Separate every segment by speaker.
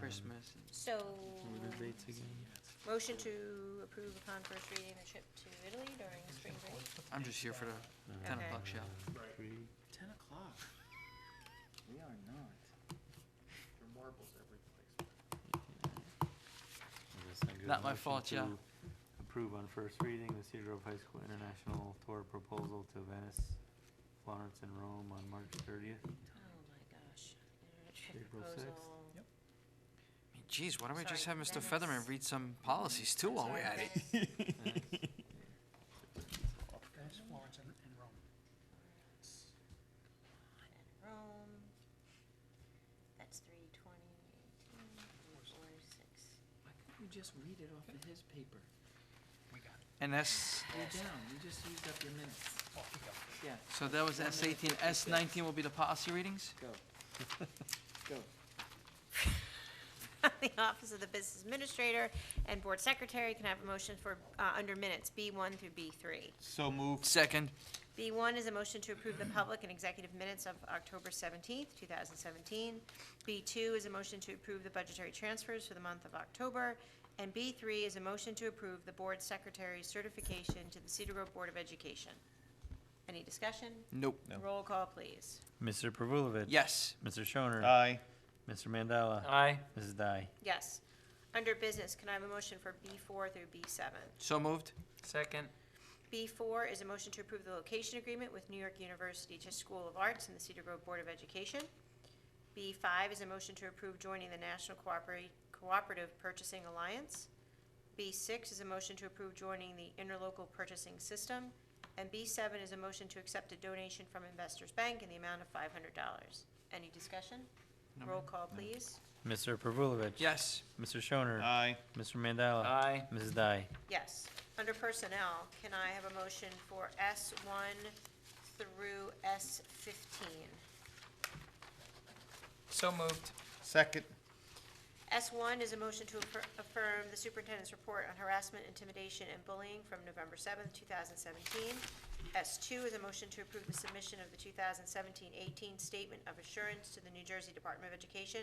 Speaker 1: Christmas.
Speaker 2: So,
Speaker 1: What are the dates again?
Speaker 2: motion to approve upon first reading a trip to Italy during spring break.
Speaker 1: I'm just here for the ten
Speaker 2: Okay.
Speaker 1: o'clock show.
Speaker 3: Ten o'clock. We are not. There are marbles every place.
Speaker 1: Not my fault, yeah.
Speaker 4: Approve on first reading the Cedar Grove High School International Tour Proposal to Venice, Florence, and Rome on March thirtieth.
Speaker 2: Oh my gosh. Internet trip
Speaker 4: April sixth.
Speaker 2: proposal.
Speaker 3: Yep.
Speaker 1: I mean, Geez, why don't we just
Speaker 2: Sorry,
Speaker 1: have Mr.
Speaker 2: Venice.
Speaker 1: Featherman read some policies too
Speaker 2: I'm
Speaker 1: while we're
Speaker 2: sorry,
Speaker 1: at it?
Speaker 2: Venice.
Speaker 3: That's Florence and, and Rome.
Speaker 2: And Rome. That's three twenty eighteen, four six.
Speaker 3: Why couldn't we just read it off of his paper? We got it.
Speaker 1: And that's,
Speaker 3: You're down, you just used up your minutes. Yeah,
Speaker 1: so that was S eighteen, S nineteen will be the policy readings?
Speaker 3: go. Go.
Speaker 2: The Office of the Business Administrator and Board Secretary can have a motion for, uh, under minutes, B one through B three.
Speaker 4: So moved.
Speaker 1: Second,
Speaker 2: B one is a motion to approve the public and executive minutes of October seventeenth, two thousand seventeen. B two is a motion to approve the budgetary transfers for the month of October. And B three is a motion to approve the board secretary's certification to the Cedar Grove Board of Education. Any discussion?
Speaker 1: nope.
Speaker 2: Roll call, please.
Speaker 4: Mr. Pervulovich.
Speaker 1: Yes.
Speaker 4: Mr. Shoner.
Speaker 5: Aye.
Speaker 4: Mr. Mandela.
Speaker 1: Aye.
Speaker 4: Mrs. Dai.
Speaker 2: Yes. Under business, can I have a motion for B four through B seven?
Speaker 1: So moved?
Speaker 5: Second.
Speaker 2: B four is a motion to approve the location agreement with New York University Tisch School of Arts and the Cedar Grove Board of Education. B five is a motion to approve joining the National Cooperati- Cooperative Purchasing Alliance. B six is a motion to approve joining the Interlocal Purchasing System. And B seven is a motion to accept a donation from Investors Bank in the amount of five hundred dollars. Any discussion?
Speaker 1: No,
Speaker 2: Roll
Speaker 1: ma'am.
Speaker 2: call, please.
Speaker 4: Mr. Pervulovich.
Speaker 1: Yes.
Speaker 4: Mr. Shoner.
Speaker 5: Aye.
Speaker 4: Mr. Mandela.
Speaker 5: Aye.
Speaker 4: Mrs. Dai.
Speaker 2: Yes. Under personnel, can I have a motion for S one through S fifteen?
Speaker 5: So moved.
Speaker 3: Second.
Speaker 2: S one is a motion to affir- affirm the superintendent's report on harassment, intimidation, and bullying from November seventh, two thousand seventeen. S two is a motion to approve the submission of the 2017-18 Statement of Assurance to the New Jersey Department of Education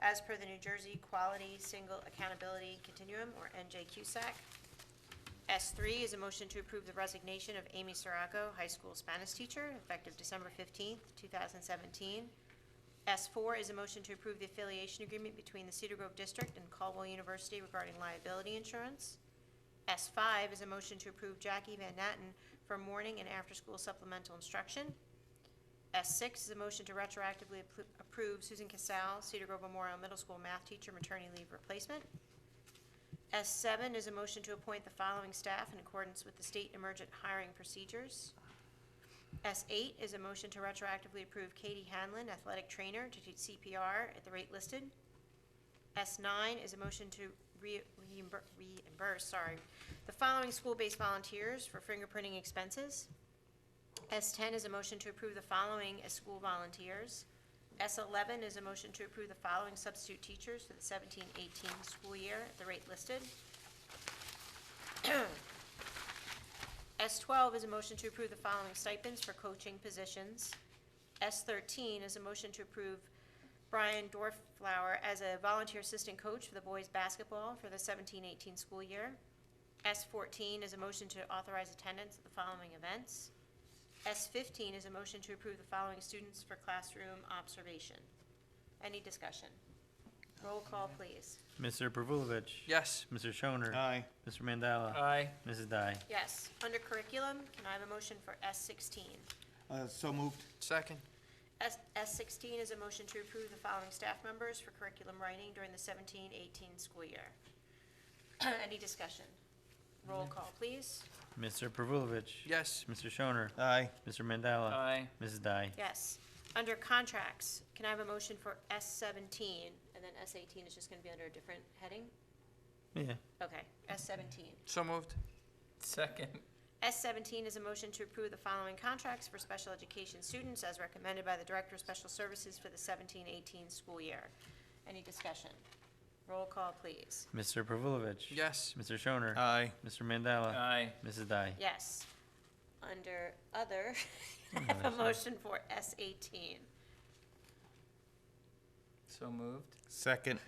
Speaker 2: as per the New Jersey Quality Single Accountability Continuum, or NJQSAC. S three is a motion to approve the resignation of Amy Soraco, high school Spanish teacher, effective December fifteenth, two thousand seventeen. S four is a motion to approve the affiliation agreement between the Cedar Grove District and Caldwell University regarding liability insurance. S five is a motion to approve Jackie Van Natten for morning and after-school supplemental instruction. S six is a motion to retroactively appro- approve Susan Casal, Cedar Grove Memorial Middle School math teacher maternity leave replacement. S seven is a motion to appoint the following staff in accordance with the state emergent hiring procedures. S eight is a motion to retroactively approve Katie Hanlon, athletic trainer, to teach CPR at the rate listed. S nine is a motion to re- reimbur- reimburse, sorry, the following school-based volunteers for fingerprinting expenses. S ten is a motion to approve the following as school volunteers. S eleven is a motion to approve the following substitute teachers for the 17-18 school year at the rate listed. S twelve is a motion to approve the following stipends for coaching positions. S thirteen is a motion to approve Brian Dorflower as a volunteer assistant coach for the boys' basketball for the 17-18 school year. S fourteen is a motion to authorize attendance at the following events. S fifteen is a motion to approve the following students for classroom observation. Any discussion? Roll call, please.
Speaker 4: Mr. Pervulovich.
Speaker 1: Yes.
Speaker 4: Mr. Shoner.
Speaker 5: Aye.
Speaker 4: Mr. Mandela.
Speaker 5: Aye.
Speaker 4: Mrs. Dai.
Speaker 2: Yes, under curriculum, can I have a motion for S sixteen?
Speaker 5: Uh, so moved.
Speaker 1: Second?
Speaker 2: S, S sixteen is a motion to approve the following staff members for curriculum writing during the 17-18 school year. Any discussion? Roll call, please.
Speaker 4: Mr. Pervulovich.
Speaker 1: Yes.
Speaker 4: Mr. Shoner.
Speaker 5: Aye.
Speaker 4: Mr. Mandela.
Speaker 5: Aye.
Speaker 4: Mrs. Dai.
Speaker 2: Yes. Under contracts, can I have a motion for S seventeen, and then S eighteen is just gonna be under a different heading?
Speaker 4: Yeah.
Speaker 2: Okay, S seventeen.
Speaker 1: So moved?
Speaker 5: Second.
Speaker 2: S seventeen is a motion to approve the following contracts for special education students as recommended by the Director of Special Services for the 17-18 school year. Any discussion? Roll call, please.
Speaker 4: Mr. Pervulovich.
Speaker 1: Yes.
Speaker 4: Mr. Shoner.
Speaker 5: Aye.
Speaker 4: Mr. Mandela.
Speaker 3: uh,
Speaker 5: Aye.
Speaker 4: Mrs. Dai.
Speaker 2: Yes. Under other,
Speaker 4: Oh,
Speaker 2: I have a
Speaker 4: that's
Speaker 2: motion for S eighteen.
Speaker 5: So moved.
Speaker 3: Second.